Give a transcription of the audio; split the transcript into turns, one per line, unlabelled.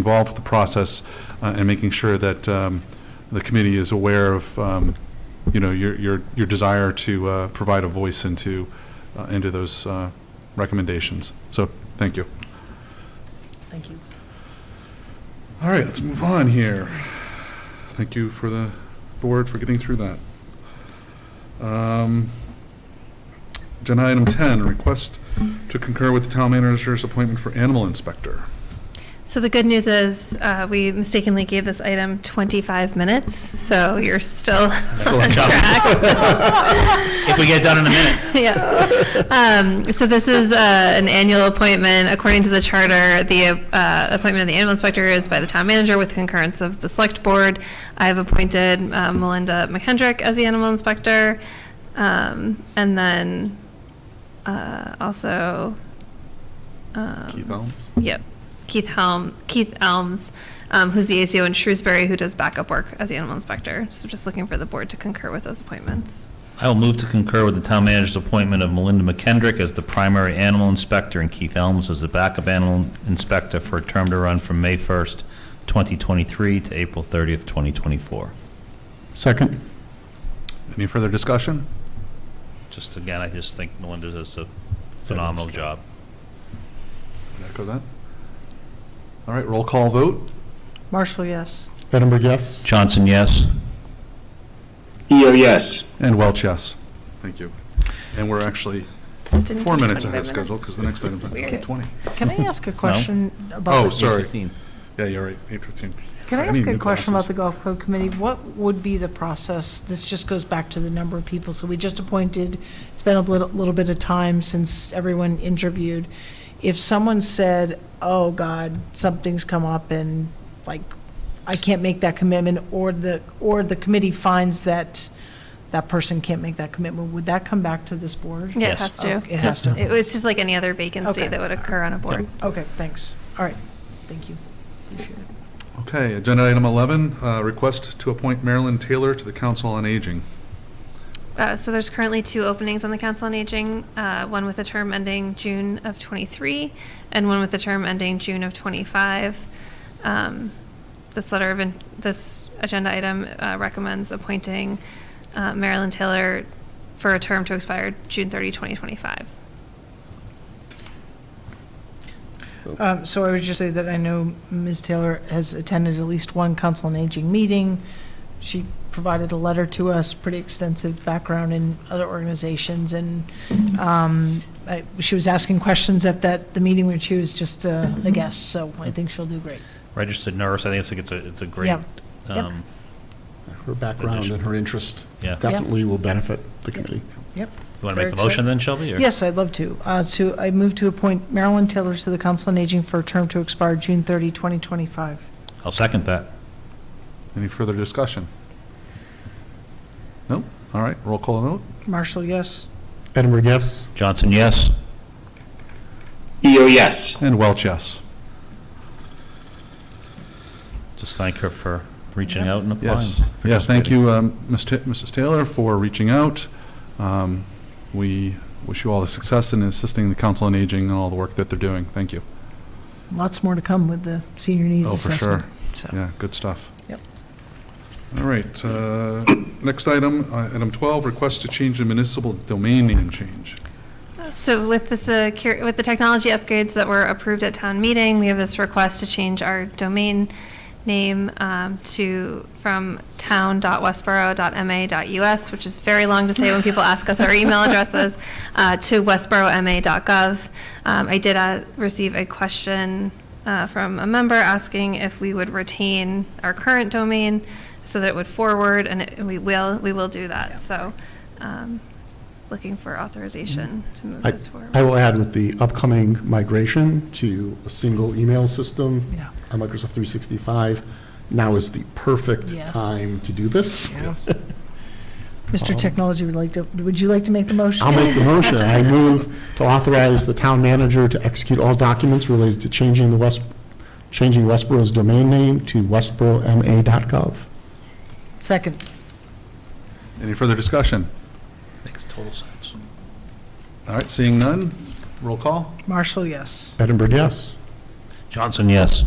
involved with the process uh, and making sure that um, the committee is aware of, um, you know, your, your, your desire to uh, provide a voice into, uh, into those uh, recommendations. So, thank you.
Thank you.
All right, let's move on here. Thank you for the board for getting through that. Um, Agenda item 10, request to concur with the town manager's appointment for animal inspector.
So the good news is, uh, we mistakenly gave this item 25 minutes, so you're still
Still
on
on track.
track.
If we get it done in a minute.
Yeah. Um, So this is uh, an annual appointment. According to the charter, the uh, appointment of the animal inspector is by the town manager with concurrence of the select board. I've appointed uh, Melinda McHendrick as the animal inspector. um, And then uh, also. um,
Keith Elms?
Yep. Keith Helm, Keith Elms, um, who's the ACO in Shrewsbury, who does backup work as the animal inspector. So just looking for the board to concur with those appointments.
I will move to concur with the town manager's appointment of Melinda McKendrick as the primary animal inspector and Keith Elms as the backup animal inspector for a term to run from May 1st, 2023 to April 30th, 2024.
Second. Any further discussion?
Just again, I just think Melinda does a phenomenal job.
Did I Echo that. All right, roll call vote.
Marshall, yes.
Edinburgh, yes.
Johnson, yes?
EO, yes.
And Welch, yes. Thank you. And we're actually
Didn't
four
do
minutes
25
ahead of schedule because the next item's at
Weird.
20.
Can I ask a question about?
Oh,
the-
sorry.
15.
Yeah, you're right, 8:15.
Can I
need
ask a
new
question
glasses.
about the golf club committee? What would be the process? This just goes back to the number of people. So we just appointed, it's been a little, little bit of time since everyone interviewed. If someone said, oh, God, something's come up and like, I can't make that commitment, or the, or the committee finds that that person can't make that commitment, would that come back to this board?
Yeah, it
Yes.
has
Oh,
to.
It has to.
It was just like any other vacancy
Okay.
that would occur on a board.
Okay, thanks. All right, thank you. Appreciate it.
Okay, agenda item 11, uh, request to appoint Marilyn Taylor to the Council on Aging.
Uh, so there's currently two openings on the Council on Aging, uh, one with a term ending June of '23, and one with a term ending June of '25. Um, this letter of in- this agenda item uh, recommends appointing uh, Marilyn Taylor for a term to expire June 30, 2025.
Um, So I would just say that I know Ms. Taylor has attended at least one council on aging meeting. She provided a letter to us, pretty extensive background in other organizations, and um, I- she was asking questions at that, the meeting when she was just uh, a guest, so I think she'll do great.
Registered nurse, I think it's like it's a, it's a great,
Yeah. Yep.
um,
Her background and her interest
yeah.
definitely will benefit the committee.
Yep.
You want to
Very
make the motion
excited.
then, Shelby? or-
Yes, I'd love to. Uh, So I move to appoint Marilyn Taylor to the council on aging for a term to expire June 30, 2025.
I'll second that.
Any further discussion? No? All right, roll call vote.
Marshall, yes?
Edinburgh, yes.
Johnson, yes?
EO, yes.
And Welch, yes.
Just thank her for reaching out and applying.
Yes. Yeah, thank you, um, Ms. Ta- Mrs. Taylor, for reaching out. Um, We wish you all the success in assisting the Council on Aging and all the work that they're doing. Thank you.
Lots more to come with the senior needs
Oh, for
assessment.
sure.
So,
Yeah, good stuff.
Yep.
All right, uh, next item, uh, item 12, request to change the municipal domain name change.
So with the secure, with the technology upgrades that were approved at town meeting, we have this request to change our domain name um, to, from town.westboro.ma.us, which is very long to say when people ask us our email addresses, uh, to westboroma.gov. Um, I did uh, receive a question uh, from a member asking if we would retain our current domain so that it would forward, and it- we will, we will do that. So um, looking for authorization to move
Mm-hmm. I
this forward.
I will add with the upcoming migration to a single email system
yeah.
on Microsoft 365, now is the perfect
Yes.
time to do this.
Yeah. Mr. Technology would like to, would you like to make the motion?
I'll make the motion. I move to authorize the town manager to execute all documents related to changing the West, changing Westboro's domain name to westboroMA.gov.
Second.
Any further discussion?
Makes total sense.
All right, seeing none, roll call.
Marshall, yes.
Edinburgh, yes.
Johnson, yes?